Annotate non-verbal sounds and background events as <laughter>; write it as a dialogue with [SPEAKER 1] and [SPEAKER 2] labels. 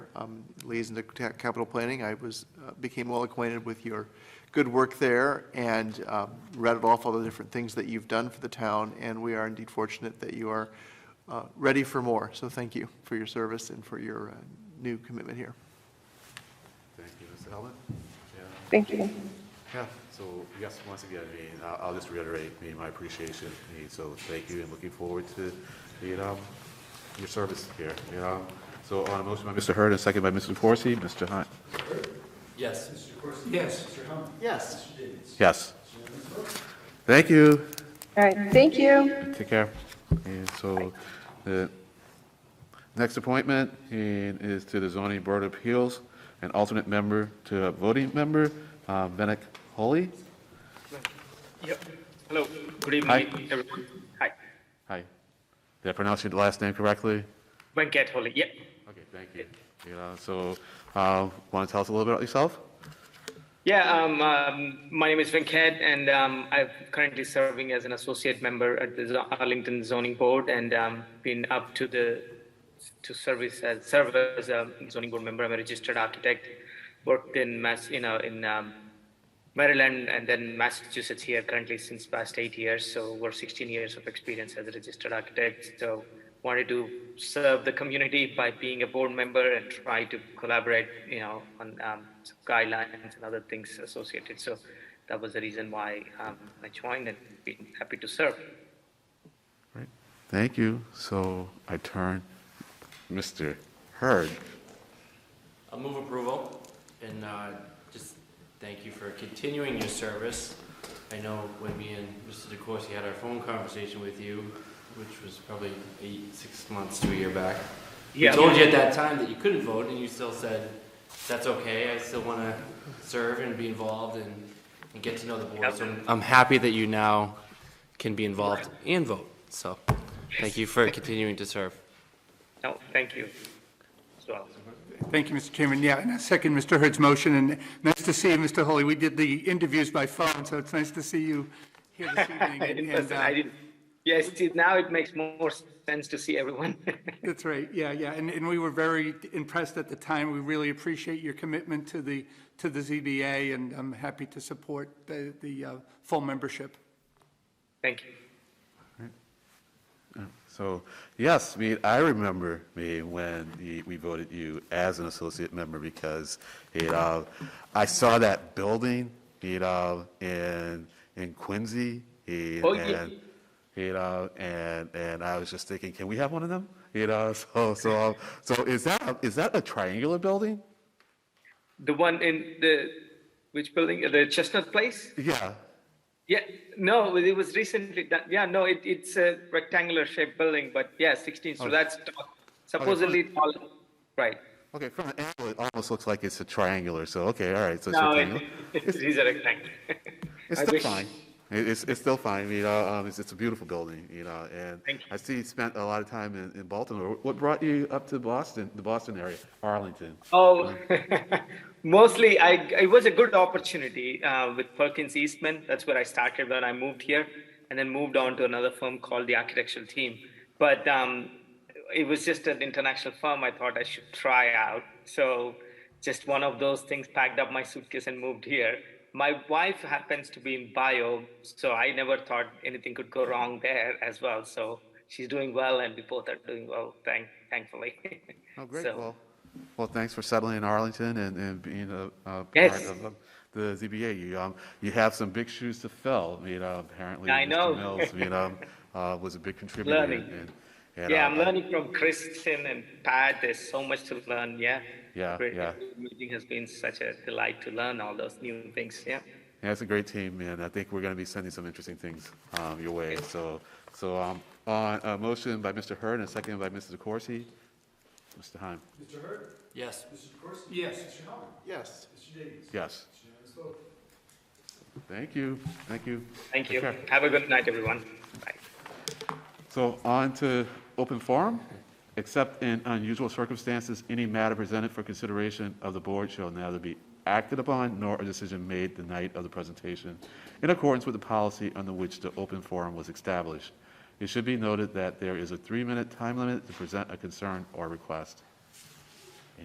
[SPEAKER 1] um, liaison to ca- capital planning. I was, uh, became well acquainted with your good work there and um, read off all the different things that you've done for the town, and we are indeed fortunate that you are uh, ready for more. So thank you for your service and for your uh, new commitment here.
[SPEAKER 2] Thank you, Mr. Hellman. Yeah.
[SPEAKER 3] Thank you.
[SPEAKER 2] Yeah, so yes, once again, I mean, I'll, I'll just reiterate, I mean, my appreciation, I mean, so thank you and looking forward to, you know, your service here, you know. So on a motion by Mr. Hurd and second by Mr. Corsi, Mr. Hunt.
[SPEAKER 4] Yes.
[SPEAKER 1] Yes.
[SPEAKER 2] Yes. Thank you,
[SPEAKER 3] All right, thank you.
[SPEAKER 2] take care. And so the next appointment and is to the zoning board of appeals, an alternate member to a voting member, uh, Venick Holly.
[SPEAKER 5] Yep. Hello, good
[SPEAKER 2] Hi.
[SPEAKER 5] evening, everyone. Hi,
[SPEAKER 2] Hi, did I pronounce your last name correctly?
[SPEAKER 5] Venkat Holi, yep.
[SPEAKER 2] Okay, thank you. You know, so, uh, want to tell us a little bit about yourself?
[SPEAKER 5] Yeah, um, um, my name is Venkat, and um, I'm currently serving as an associate member at the Zo- Arlington Zoning Board, and um, been up to the to service as serve as a zoning board member. I'm a registered architect, worked in Mass, you know, in um, Maryland and then Massachusetts here currently since past eight years. So we're 16 years of experience as a registered architect. So wanted to serve the community by being a board member and try to collaborate, you know, on um, some guidelines and other things associated. So that was the reason why um, I joined and been happy to serve.
[SPEAKER 2] Right. Thank you. So I turn, Mr. Hurd.
[SPEAKER 4] I'll move approval and uh, just thank you for continuing your service. I know when me and Mr. DeCoursey had our phone conversation with you, which was probably eight, six months to a year back. We
[SPEAKER 5] Yeah.
[SPEAKER 4] told you at that time that you couldn't vote and you still said, that's okay, I still want to serve and be involved and, and get to know the board. So I'm- I'm happy that you now can be involved and vote. So thank you for continuing to serve.
[SPEAKER 5] No, thank you as well.
[SPEAKER 6] Thank you, Mr. Chairman. Yeah, and I second Mr. Hurd's motion, and nice to see you, Mr. Holly. We did the interviews by phone, so it's nice to see you here
[SPEAKER 5] <laughs>
[SPEAKER 6] this evening.
[SPEAKER 5] In
[SPEAKER 6] and,
[SPEAKER 5] person,
[SPEAKER 6] uh,
[SPEAKER 5] I didn't. Yes, see, now it makes more sense to see everyone. <laughs>
[SPEAKER 6] That's right, yeah, yeah, and, and we were very impressed at the time. We really appreciate your commitment to the, to the ZBA, and I'm happy to support the, the uh, full membership.
[SPEAKER 5] thank you.
[SPEAKER 2] So, yes, me, I remember me when the- we voted you as an associate member because, you know, I saw that building, you know, in, in Quincy. and-
[SPEAKER 5] Oh, yeah.
[SPEAKER 2] and- You know, and, and I was just thinking, can we have one of them? You know, <laughs> so, so, so is that, a- is that a triangular building?
[SPEAKER 5] The one in the, which building, the Chestnut Place?
[SPEAKER 2] Yeah,
[SPEAKER 5] Yeah, no, it was recently done, yeah, no, it, it's a rectangular shaped building, but yeah, sixteen,
[SPEAKER 2] Oh,
[SPEAKER 5] so that's tall. supposedly tall, right?
[SPEAKER 2] Okay, from an angle, it almost looks like it's a triangular, so, okay, all right, so it's
[SPEAKER 5] No,
[SPEAKER 2] rectangular.
[SPEAKER 5] it, it is a rectangle.
[SPEAKER 2] It's
[SPEAKER 5] <laughs> I
[SPEAKER 2] still
[SPEAKER 5] wish-
[SPEAKER 2] fine. It- It's, it's still fine, you know, um, it's, it's a beautiful building, you know, and
[SPEAKER 5] Thank you.
[SPEAKER 2] I see you spent a lot of time in, in Baltimore. What brought you up to Boston, the Boston area, Arlington?
[SPEAKER 5] Oh, <laughs> mostly I, it was a good opportunity uh, with Perkins Eastman. That's where I started when I moved here and then moved on to another firm called the architectural team. But um, it was just an international firm I thought I should try out. So just one of those things packed up my suitcase and moved here. My wife happens to be in bio, so I never thought anything could go wrong there as well. So she's doing well and we both are doing well, thank, thankfully.
[SPEAKER 2] Oh, great,
[SPEAKER 5] <laughs> So-
[SPEAKER 2] well, well, thanks for settling in Arlington and, and being a, a part
[SPEAKER 5] Yes.
[SPEAKER 2] of um, the ZBA. You, um, you have some big shoes to fill, you know, apparently.
[SPEAKER 5] I
[SPEAKER 2] Mr.
[SPEAKER 5] know.
[SPEAKER 2] Mills, you
[SPEAKER 5] <laughs>
[SPEAKER 2] know, uh, was a big contributor.
[SPEAKER 5] Learning.
[SPEAKER 2] and- and,
[SPEAKER 5] Yeah,
[SPEAKER 2] uh,
[SPEAKER 5] I'm learning from Kristen and Pat. There's so much to learn. Yeah.
[SPEAKER 2] Yeah,
[SPEAKER 5] Great.
[SPEAKER 2] yeah.
[SPEAKER 5] Meeting has been such a delight to learn all those new things. Yeah.
[SPEAKER 2] Yeah, it's a great team, and I think we're going to be sending some interesting things um, your way. So, so um, on a motion by Mr. Hurd and a second by Mr. DeCoursey, Mr. Heim,
[SPEAKER 4] Yes.
[SPEAKER 1] Yes.
[SPEAKER 2] yes. Thank you, thank you.
[SPEAKER 5] Thank you.
[SPEAKER 2] Okay.
[SPEAKER 5] Have a good night, everyone. Bye.
[SPEAKER 2] So on to open forum. Except in unusual circumstances, any matter presented for consideration of the board shall neither be acted upon nor a decision made the night of the presentation in accordance with the policy under which the open forum was established. It should be noted that there is a three-minute time limit to present a concern or request.